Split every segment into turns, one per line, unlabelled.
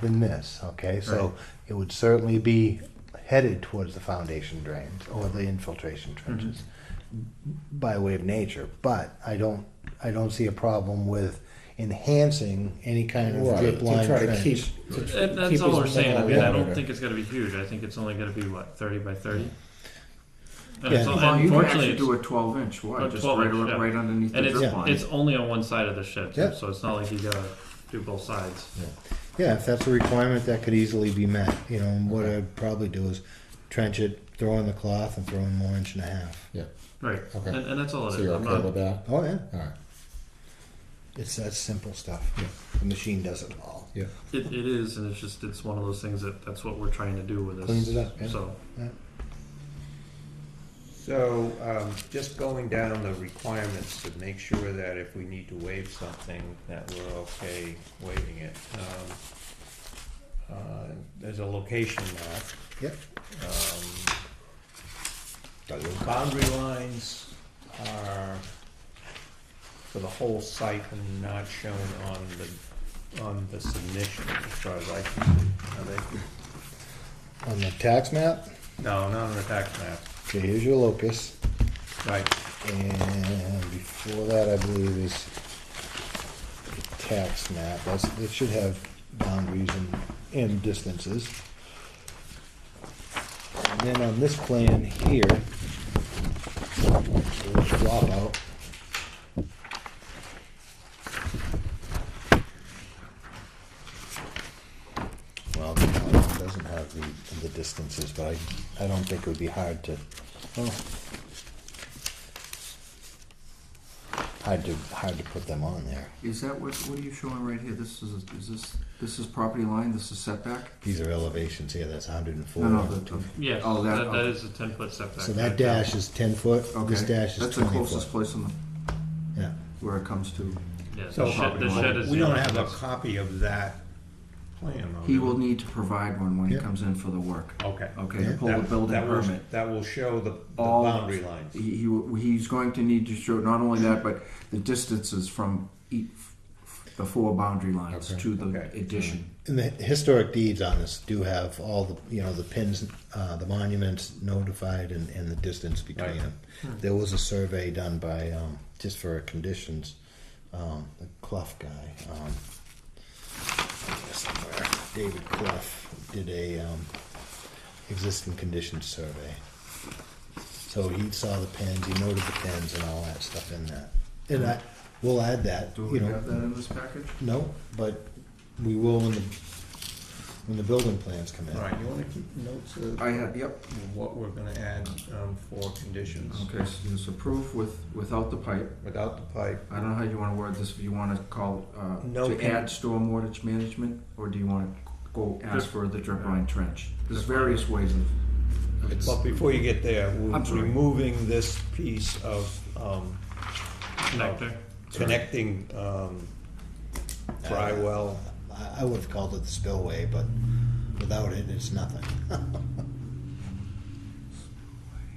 than this, okay? So it would certainly be headed towards the foundation drains or the infiltration trenches
Mm-hmm.
by way of nature, but I don't, I don't see a problem with enhancing any kind of
Right,
drip line
to try to keep.
trench.
to tr-
That-
keep
That's all
as
we're saying, I
minimal
mean, I
water.
don't think it's gonna be huge, I think it's only gonna be, what, thirty by thirty? And
Yeah.
it's all-
Well, you can
Unfortunately,
actually
it's-
do a 12 inch
A
wide, just
12
right,
inch,
o-
yeah.
right underneath
and
the drip line.
it's, it's only on one side of the shed,
Yeah.
too, so it's not like you gotta do both sides.
Yeah, if that's a requirement, that could easily be met, you know, and what I'd probably do is trench it, throw in the cloth and throw in more inch and a half.
Yeah,
Right,
Okay.
and, and that's all it
so
is.
you're
I'm
okay
not-
with that?
Oh, yeah,
All right,
it's that simple stuff. The machine does it all.
yeah.
It, it is, and it's just, it's one of those things that, that's what we're trying to do with this.
Cleans it up, yeah.
So,
So, um, just going down the requirements to make sure that if we need to waive something, that we're okay waiving it. Um, uh, There's a location map.
Yep.
Um, Boundary lines are for the whole site and not shown on the, on the submission, as far as I can see. Are they?
On the tax map,
No, not on the tax map,
okay, here's your locus,
right.
and before that, I believe is the tax map, that's, it should have boundaries and, and distances. And then on this plan here, little drop out. Well, the it doesn't have the, the distances, but I, I don't think it would be hard to, well, hard to, hard to put them on there.
Is that what, what are you showing right here? This is, is this, this is property line, this is setback?
These are elevations here, that's hundred and four.
No, no, the, the-
yeah,
Oh, that-
that, that
okay.
is a ten foot setback.
So that dash is ten foot,
okay.
this dash is
That's the
twenty
closest
foot.
place on the,
Yeah,
where it comes to.
Yeah, the
So-
shed, the shed is.
We
the
don't
only
have a
thing
copy of that plan, though.
He
do we?
will need to provide one when he
Yeah.
comes in for the work.
Okay.
Okay, to
Yeah.
pull the
That-
building
that will-
permit.
That will show the the
All-
boundary lines.
He, he will- he's going to need to show not only that, but the distances from each, the four boundary lines
Okay.
to the
Okay.
addition.
and the historic deeds on this do have all the, you know, the pins, uh, the monuments notified and, and the distance between
Right.
them. There was a survey done by, um, just for conditions, um, the Clough guy, um, somewhere, David Clough did a, um, existing conditions survey. So he saw the pins, he noted the pins and all that stuff in that. And I, we'll add that,
Do
you
we
know.
have that in this package?
No, but we will when the, when the building plans come in.
All right, you want to keep notes of
I have, yep.
what we're going to add um, for conditions?
Okay, so it's approved with, without the pipe.
Without the pipe,
I don't know how you wanna word this, if you wanna call, uh,
No
to
pin-
add stormwater management, or do you wanna go ask for the drip line trench? There's
Drip line.
various ways of,
It's-
but before you get there, we're
I'm sorry.
removing this piece of um,
Connector,
connecting um, dry well.
I, I would have called it the spillway, but without it, it's nothing.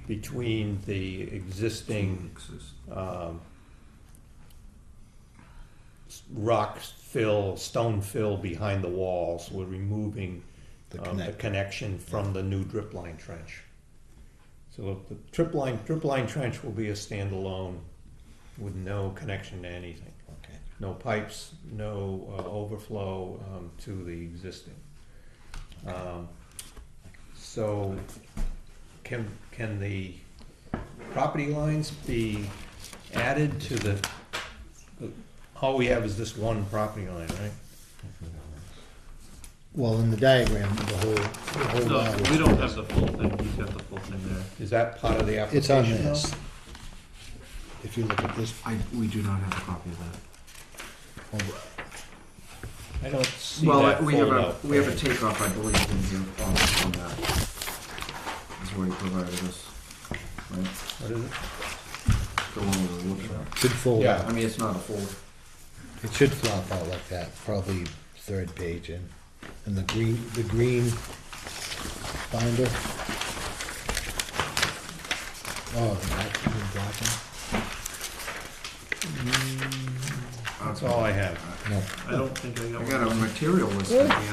between the existing um, s- rock fill, stone fill behind the walls. We're removing
The
um, the
connect-
connection from the new drip line trench. So the drip line, drip line trench will be a standalone with no connection to anything.
Okay.
No pipes, no uh, overflow um, to the existing. Um, So can, can the property lines be added to the, all we have is this one property line, right?
Well, in the diagram, the whole, the whole
no,
lot
we
is-
don't have the full thing, he's got the full thing there.
Is that part of the application?
It's on
though?
this. If you look at this,
I, we do not have a copy of that.
oh,
I don't see
Well,
that
we have
folder.
a, we have a takeoff, I believe, in here, on, on that. Is where he provided us, right?
What is it?
The one we were looking at.
should fold
Yeah.
I
out.
mean, it's not a folder.
It should flop out like that, probably third page in. And the green, the green binder. Oh, the black, the black one?
That's all I have.
No.
I don't think I got one.
I got a material list at the end.